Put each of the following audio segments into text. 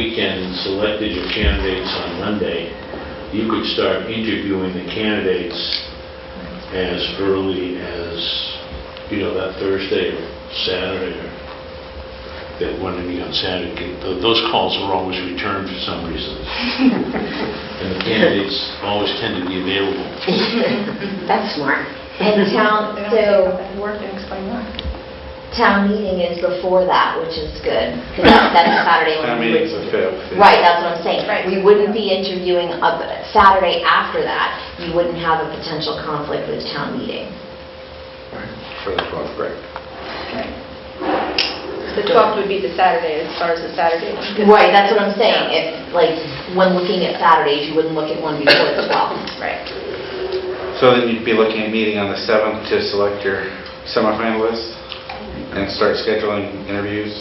weekend and selected your candidates on Monday, you could start interviewing the candidates as early as, you know, that Thursday or Saturday, or that one to meet on Saturday. Th- Those calls are always returned for some reason. And the candidates always tend to be available. That's smart. And town, They don't take up so that work and explain why. town meeting is before that, which is good, because that's a Saturday when we would... fifth. Right, that's what I'm saying. Right. We wouldn't be interviewing up Saturday after that, you wouldn't have a potential conflict with town meeting. For the 12th grade. The 12th would be the Saturday, as far as the Saturday. Right, that's what I'm saying, if, like, when looking at Saturdays, you wouldn't look at one before the 12th. Right. So then you'd be looking at meeting on the 7th to select your semifinalists and start scheduling interviews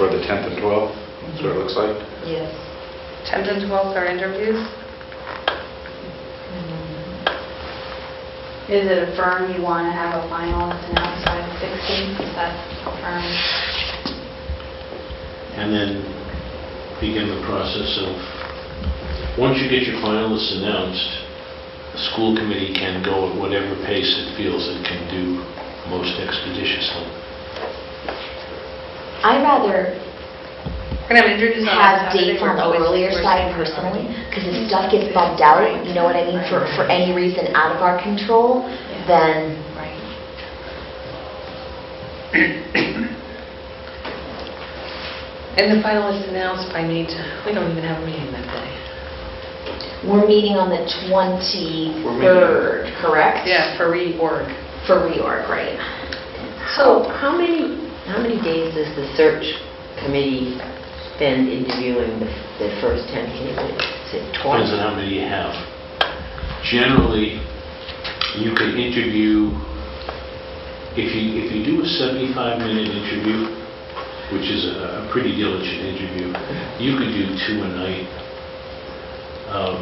for the 10th and 12th, that's what it looks like. Yes. 10th and 12th are interviews? Is it a firm you want to have a finalist and outside of 16? Is that a firm? and then begin the process of, once you get your finalists announced, the school committee can go at whatever pace it feels it can do most expeditiously. I'd rather We're going to have interviews on have Saturday, dates on we're the always- earlier we're side saying- personally, because if stuff gets bumped out, you know what I mean, for, for any reason out of our control, then Right. And the finalists announced by need to, we don't even have a meeting that day. we're meeting on the We're meeting. 23rd, correct? Yeah, for reorg. For reorg, right? So how many, how many days does the search committee spend interviewing the the first 10 candidates? Is it Depends twice? on how many you have. Generally, you can interview, if you, if you do a 75-minute interview, which is a a pretty diligent interview, you could do two a night. Um,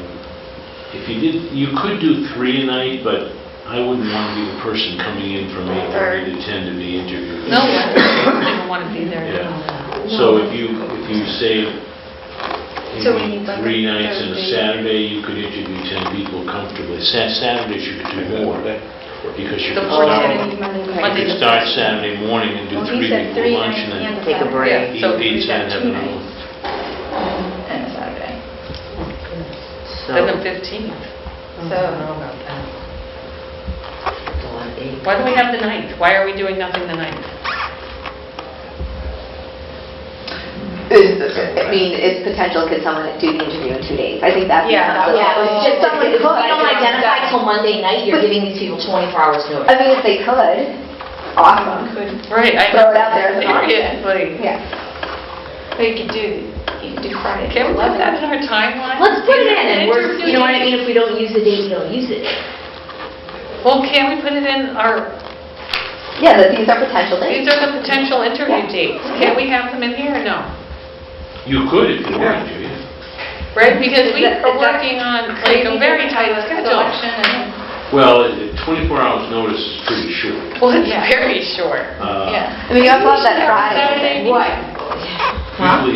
If you did, you could do three a night, but I wouldn't want to be the person coming in from 8:30 to 10 to be interviewed. No, I don't want to be there. Yeah. So if you, if you save, you So we need know, like three a nights and a Thursday. Saturday, you could interview 10 people comfortably. Sa- Saturdays you could do more, because you The could fourth start, Saturday. you Monday could to start Thursday. Saturday morning and do Well, he three said before three lunch and night then and Take a Yeah. break. eat So we've pizza got and have two another nights. one. And a Saturday. So, Then the 15th. I Mm-hmm. don't So- know about that. That's a lot of days. Why do we have the 9th? Why are we doing nothing the 9th? Is, I mean, is potential, could someone do the interview in two days? I think that's. Yeah, that Yeah, it's just something, if we don't identify Yeah. till Monday night, you're giving these people 24 hours notice. I mean, if they could, Someone awesome. could, Right. I- Throw it out there as an option. Seriously. Yeah. but you could do, you could do Friday. Can we put that in our timeline? Let's put it in, and we're, Interview you know what I mean, if dates. we don't use the date, we don't use it. Well, can we put it in our, Yeah, that these are potential these dates. are the potential interview dates. Can we have them in here or no? You could if you wanted to, yeah. Right, because we Is that- are is that working on like a crazy to very tight have a schedule. selection and- Well, it- it- 24 hours notice is pretty short. Well, it's very short. Uh, Yeah. I mean, you also have We that should have Friday. a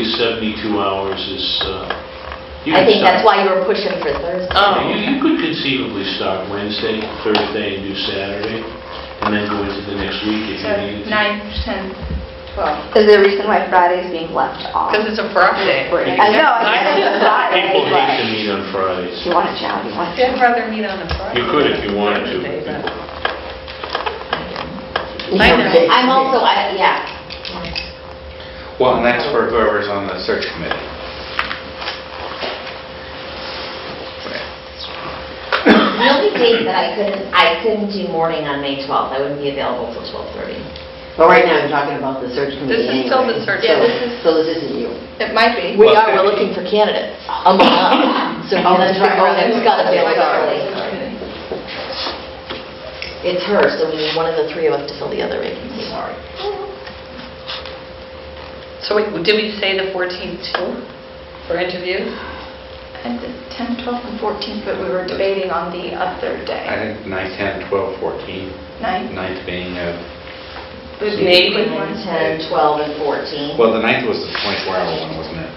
Saturday Usually meeting. 72 hours is, uh, you can I think that's start- why you were pushing for Thursday. Oh, You you could conceivably start Wednesday, Thursday, and do Saturday, and then go into the next week if So you needed to. 9, 10, 12. Is there a reason why Friday is being left off? because it's a Friday. I know, I I- said it's Friday, People hate to but meet on Fridays. if you want to chat, you want to. I'd rather meet on a Friday. You could if you wanted to. I know. I'm also, I, yeah. Well, and that's for whoever's on the search committee. The only date that I couldn't, I couldn't do morning on May 12th, I wouldn't be available till 12:30. But right now, you're talking about the search committee This is still the anyway. search So- committee. So this isn't you. It might be. We are, we're looking for candidates, among us. So Oh, that's right. It's got to be Sorry. early. It's her, so we need one of the three of us to fill the other vacancy. Sorry. So wait, did we say the 14th too for interviews? And the 10, 12, and 14, but we were debating on the other I day. think 9, 10, 12, 14, 9? 9th being, uh, Maybe. Ten, twelve, and 14. well, the 9th was the 24-hour one, wasn't it?